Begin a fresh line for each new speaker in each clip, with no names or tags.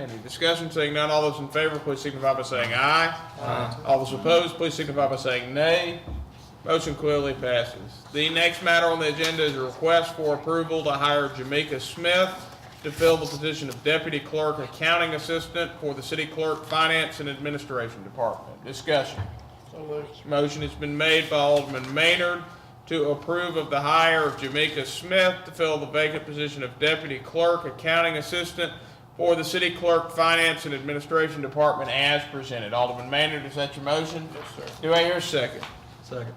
Any discussion, seeing none, all those in favor, please signify by saying aye. Aye. All those opposed, please signify by saying nay. Motion clearly passes. The next matter on the agenda is a request for approval to hire Jamaica Smith to fill the position of Deputy Clerk Accounting Assistant for the City Clerk Finance and Administration Department. Discussion. Motion has been made by Alderman Maynard to approve of the hire of Jamaica Smith to fill the vacant position of Deputy Clerk Accounting Assistant for the City Clerk Finance and Administration Department as presented. Alderman Maynard, is that your motion? Yes, sir. Do I hear a second?
Second.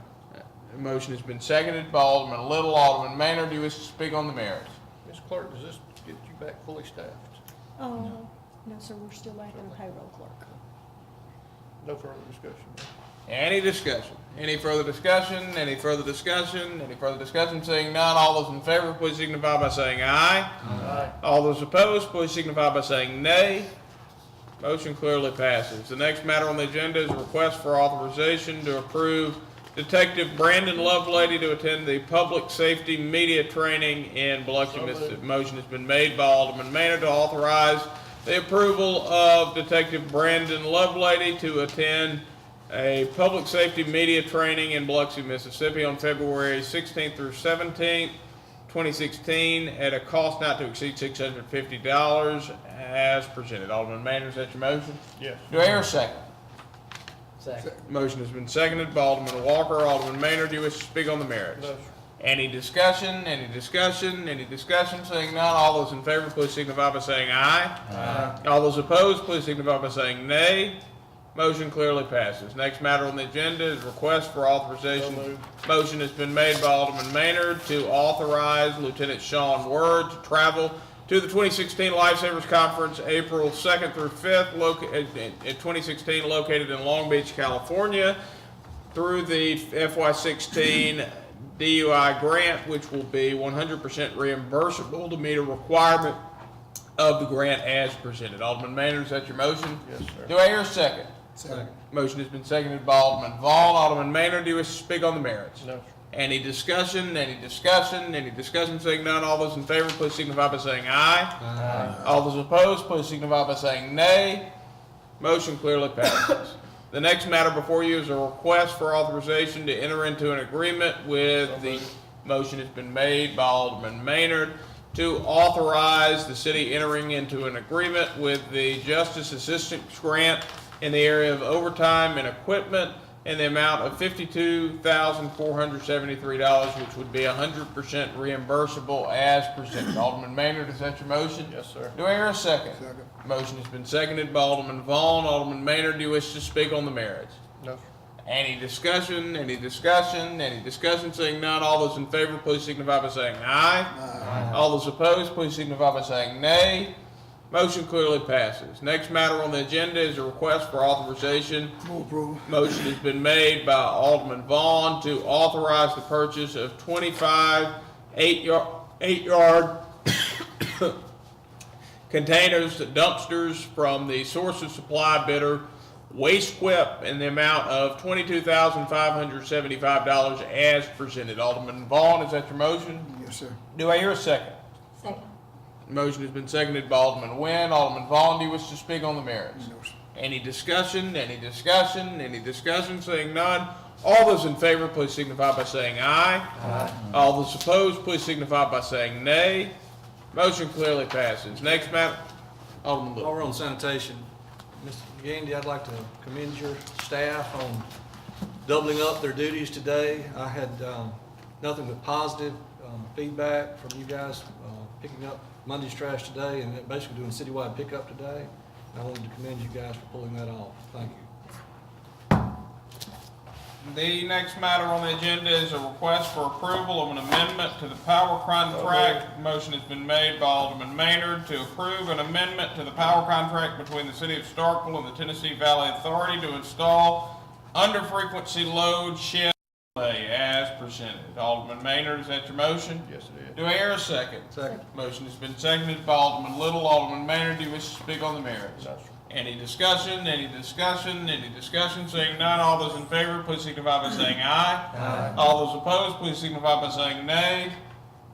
The motion has been seconded by Alderman Little. Alderman Maynard, do you wish to speak on the merits?
Ms. Clerk, does this get you back fully staffed?
Oh, no, sir, we're still lacking a payroll clerk.
No further discussion.
Any discussion? Any further discussion? Any further discussion? Any further discussion? Seeing none, all those in favor, please signify by saying aye.
Aye.
All those opposed, please signify by saying nay. Motion clearly passes. The next matter on the agenda is a request for authorization to approve Detective Brandon Lovelady to attend the Public Safety Media Training in Biloxi, Mississippi. Motion has been made by Alderman Maynard to authorize the approval of Detective Brandon Lovelady to attend a Public Safety Media Training in Biloxi, Mississippi on February 16th through 17th, 2016 at a cost not to exceed $650 as presented. Alderman Maynard, is that your motion?
Yes.
Do I hear a second?
Second.
Motion has been seconded by Alderman Walker. Alderman Maynard, do you wish to speak on the merits?
No, sir.
Any discussion, any discussion, any discussion? Seeing none, all those in favor, please signify by saying aye. Aye. All those opposed, please signify by saying nay. Motion clearly passes. Next matter on the agenda is request for authorization.
So moved.
Motion has been made by Alderman Maynard to authorize Lieutenant Sean Word to travel to the 2016 Lifesavers Conference, April 2nd through 5th, loca- uh, in in- in 2016, located in Long Beach, California, through the FY16 DUI grant, which will be 100% reimbursable to meet a requirement of the grant as presented. Alderman Maynard, is that your motion?
Yes, sir.
Do I hear a second?
Second.
Motion has been seconded by Alderman Vaughn. Alderman Maynard, do you wish to speak on the merits?
No, sir.
Any discussion, any discussion, any discussion, saying none, all those in favor, please signify by saying aye.
Aye.
All those opposed, please signify by saying nay. Motion clearly passes. The next matter before you is a request for authorization to enter into an agreement with the, motion has been made by Alderman Maynard to authorize the city entering into an agreement with the Justice Assistance Grant in the area of overtime and equipment in the amount of fifty-two thousand four hundred seventy-three dollars, which would be hundred percent reimbursable as presented. Alderman Maynard, is that your motion?
Yes, sir.
Do I hear a second? Motion has been seconded by Alderman Vaughn. Alderman Maynard, do you wish to speak on the merits?
No, sir.
Any discussion, any discussion, any discussion, seeing none, all those in favor, please signify by saying aye. All those opposed, please signify by saying nay. Motion clearly passes. Next matter on the agenda is a request for authorization. Motion has been made by Alderman Vaughn to authorize the purchase of twenty-five eight-yard, eight-yard containers, dumpsters from the source of supply bidder, Waste Quip, in the amount of twenty-two thousand five hundred seventy-five dollars as presented. Alderman Vaughn, is that your motion?
Yes, sir.
Do I hear a second?
Second.
Motion has been seconded by Alderman Nguyen. Alderman Vaughn, do you wish to speak on the merits? Any discussion, any discussion, any discussion, seeing none? All those in favor, please signify by saying aye. Aye. All those opposed, please signify by saying nay. Motion clearly passes. Next matter, Alderman Lewis.
While we're on sanitation, Mr. Gandy, I'd like to commend your staff on doubling up their duties today. I had um, nothing but positive um, feedback from you guys uh, picking up Monday's trash today and basically doing citywide pickup today. And I wanted to commend you guys for pulling that off. Thank you.
The next matter on the agenda is a request for approval of an amendment to the power contract. Motion has been made by Alderman Maynard to approve an amendment to the power contract between the city of Starkville and the Tennessee Valley Authority to install under-frequency load shed relay as presented. Alderman Maynard, is that your motion?
Yes, it is.
Do I hear a second?
Second.
Motion has been seconded by Alderman Little. Alderman Maynard, do you wish to speak on the merits?
No, sir.
Any discussion, any discussion, any discussion, seeing none, all those in favor, please signify by saying aye. Aye. All those opposed, please signify by saying nay.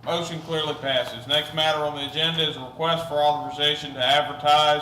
Motion clearly passes. Next matter on the agenda is a request for authorization to advertise